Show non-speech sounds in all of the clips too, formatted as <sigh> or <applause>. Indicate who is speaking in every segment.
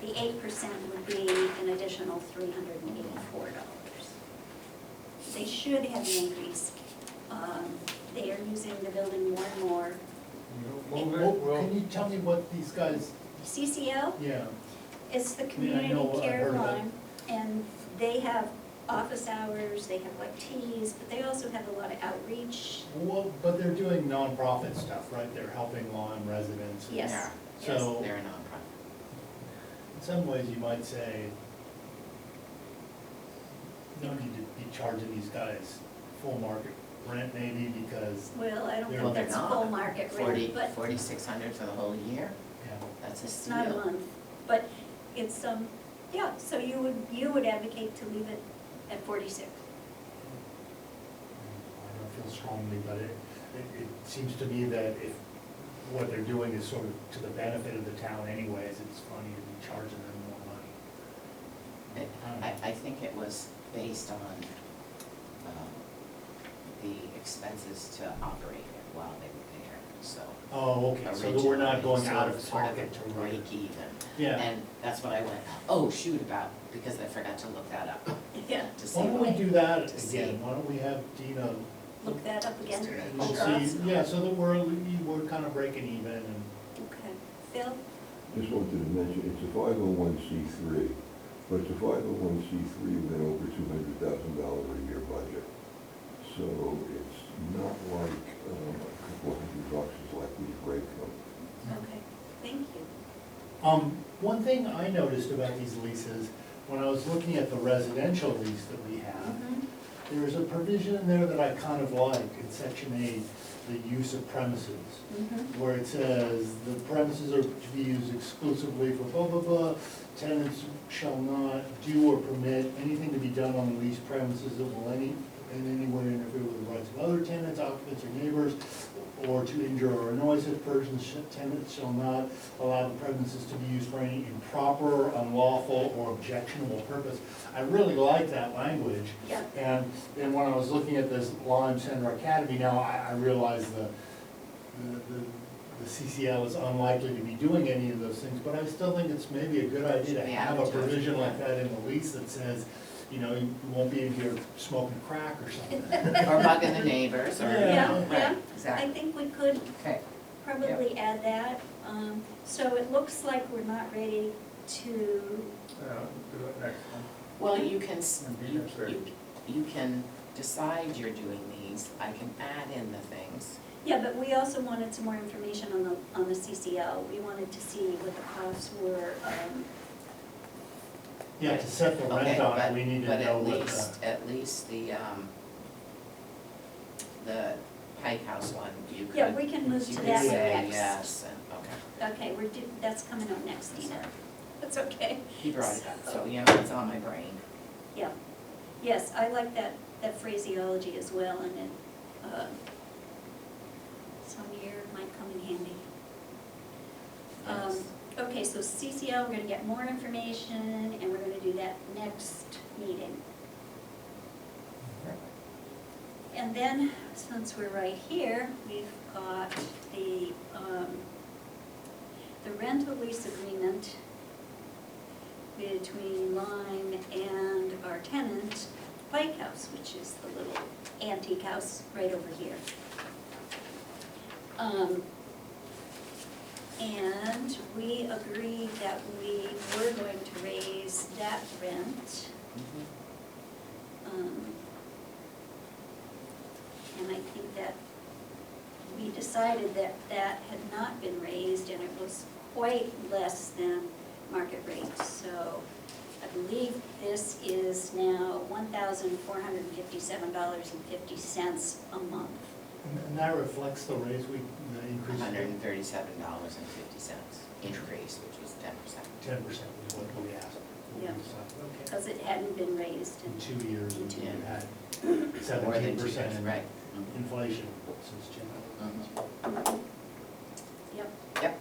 Speaker 1: the eight percent would be an additional three hundred and eighty-four dollars. They should have an increase. Um, They are using the building more and more.
Speaker 2: Move it,
Speaker 3: Well,
Speaker 2: we'll,
Speaker 3: Can you tell me what these guys,
Speaker 1: CCL
Speaker 3: yeah,
Speaker 1: is the
Speaker 3: mean, I
Speaker 1: community
Speaker 3: know, I've
Speaker 1: care
Speaker 3: heard of it.
Speaker 1: line, and they have office hours, they have like teas, but they also have a lot of outreach.
Speaker 3: well, but they're doing nonprofit stuff, right? They're helping Lyme residents. and-
Speaker 1: Yes,
Speaker 4: Yeah.
Speaker 1: yes.
Speaker 3: So-
Speaker 4: They're a nonprofit.
Speaker 3: In some ways, you might say, no need to be charging these guys full market rent maybe because,
Speaker 1: Well, I don't
Speaker 3: They're-
Speaker 4: Well,
Speaker 1: think
Speaker 4: they're
Speaker 1: that's full
Speaker 4: not.
Speaker 1: market
Speaker 4: Forty,
Speaker 1: rate, but
Speaker 4: forty-six hundred for the whole year,
Speaker 3: yeah,
Speaker 4: that's a
Speaker 1: It's not a
Speaker 4: steal.
Speaker 1: month, but it's, um, yeah, so you would, you would advocate to leave it at forty-six?
Speaker 3: I don't feel strongly, but it, it, it seems to me that if what they're doing is sort of to the benefit of the town anyways, it's funny to be charging them more money.
Speaker 4: It-
Speaker 3: Mm.
Speaker 4: I, I think it was based on, um, the expenses to operate it while they were there, so.
Speaker 3: Oh, okay, so that we're not going
Speaker 4: originally,
Speaker 3: out
Speaker 4: sort
Speaker 3: of
Speaker 4: sort
Speaker 3: pocket
Speaker 4: a
Speaker 3: to write.
Speaker 4: Break even.
Speaker 3: Yeah.
Speaker 4: And that's what I went, oh, shoot about, because I forgot to look that up, <laughs>
Speaker 1: Yeah.
Speaker 4: to see
Speaker 3: Why don't
Speaker 4: what,
Speaker 3: we do that
Speaker 4: To see.
Speaker 3: again? Why don't we have Dina,
Speaker 1: Look that up again.
Speaker 4: Just to
Speaker 3: we'll
Speaker 4: Sure.
Speaker 3: Oh, see, yeah, so that we're, we're kind of breaking even and,
Speaker 1: Okay, Phil,
Speaker 5: Just wanted to mention, it's a five oh one C three, but it's a five oh one C three with an over two hundred thousand dollar a year budget. So it's not like, um, a couple hundred bucks is like we break them.
Speaker 1: okay, thank you.
Speaker 3: um, one thing I noticed about these leases, when I was looking at the residential lease that we have,
Speaker 1: Mhm.
Speaker 3: there was a provision in there that I kind of like in section eight, the use of premises.
Speaker 1: Mhm.
Speaker 3: where it says, the premises are to be used exclusively for blah, blah, blah. Tenants shall not do or permit anything to be done on the leased premises that will any, in any way interfere with the rights of other tenants, occupants, or neighbors, or to injure or annoy such persons, Sh- tenants shall not allow the premises to be used for any improper, unlawful, or objectionable purpose. I really like that language.
Speaker 1: Yeah.
Speaker 3: And then when I was looking at this Lime Center Academy, now I, I realize the, the, the- the CCL is unlikely to be doing any of those things, but I still think it's maybe a good idea to
Speaker 4: Yeah,
Speaker 3: have a
Speaker 4: advertise it.
Speaker 3: provision like that in the lease that says, you know, you you won't be in here smoking crack or
Speaker 4: <laughs>
Speaker 3: something.
Speaker 4: or bugging the neighbors, or,
Speaker 3: Yeah,
Speaker 4: right,
Speaker 1: yeah. I
Speaker 4: exactly.
Speaker 1: think we could
Speaker 4: Okay,
Speaker 1: probably add that. Um, So it looks like we're not ready to,
Speaker 2: uh, do it next one.
Speaker 4: well, you can, s-
Speaker 2: And be
Speaker 4: you,
Speaker 2: necessary.
Speaker 4: you, you can decide you're doing these, I can add in the things.
Speaker 1: yeah, but we also wanted some more information on the, on the CCL. We wanted to see what the costs were, um,
Speaker 3: Yeah, to set the rent
Speaker 4: Okay,
Speaker 3: on
Speaker 4: but-
Speaker 3: it, we need to know
Speaker 4: But
Speaker 3: what uh,
Speaker 4: at least,
Speaker 3: the,
Speaker 4: at least the, um, the Pike House one, you could.
Speaker 1: Yeah, we can move
Speaker 4: you
Speaker 1: to
Speaker 4: could
Speaker 1: that one
Speaker 4: say
Speaker 1: next.
Speaker 4: yes, and, okay,
Speaker 1: okay, we're, do- that's coming up next, Dina.
Speaker 4: sorry.
Speaker 1: <laughs> That's okay.
Speaker 4: He brought it up, so, yeah, it's on my brain.
Speaker 1: Yeah, yes, I like that, that phraseology as well, and it, uh, some year might come in handy. Um,
Speaker 4: Yes.
Speaker 1: Okay, so CCL, we're gonna get more information, and we're gonna do that next meeting. And then, since we're right here, we've got the, um, the rental lease agreement between Lime and our tenant, Pike House, which is the little antique house right over here. Um, and we agreed that we were going to raise that rent,
Speaker 4: Mhm.
Speaker 1: um, And I think that we decided that that had not been raised and it was quite less than market rate. So I believe this is now one thousand four hundred and fifty-seven dollars and fifty cents a month.
Speaker 3: and that reflects the raise we, the increase.
Speaker 4: hundred and thirty-seven dollars and fifty cents increase, which was ten percent.
Speaker 3: Ten percent was what we asked. what we
Speaker 1: Yeah.
Speaker 3: decided.
Speaker 1: Because it hadn't been raised
Speaker 3: In
Speaker 1: and
Speaker 3: two years,
Speaker 1: In two
Speaker 3: we
Speaker 4: years.
Speaker 3: had
Speaker 4: More than
Speaker 3: seventeen
Speaker 4: two
Speaker 3: percent
Speaker 4: years,
Speaker 3: in
Speaker 4: Right. Mhm.
Speaker 3: inflation since January.
Speaker 4: Mhm.
Speaker 1: Yep.
Speaker 4: Yep.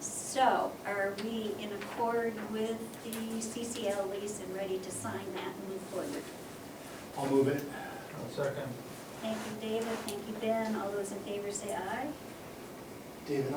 Speaker 1: So are we in accord with the CCL lease and ready to sign that and move forward?
Speaker 3: I'll move it.
Speaker 2: I'll second.
Speaker 1: Thank you, David. Thank you, Ben. All those in favor say aye.
Speaker 3: David,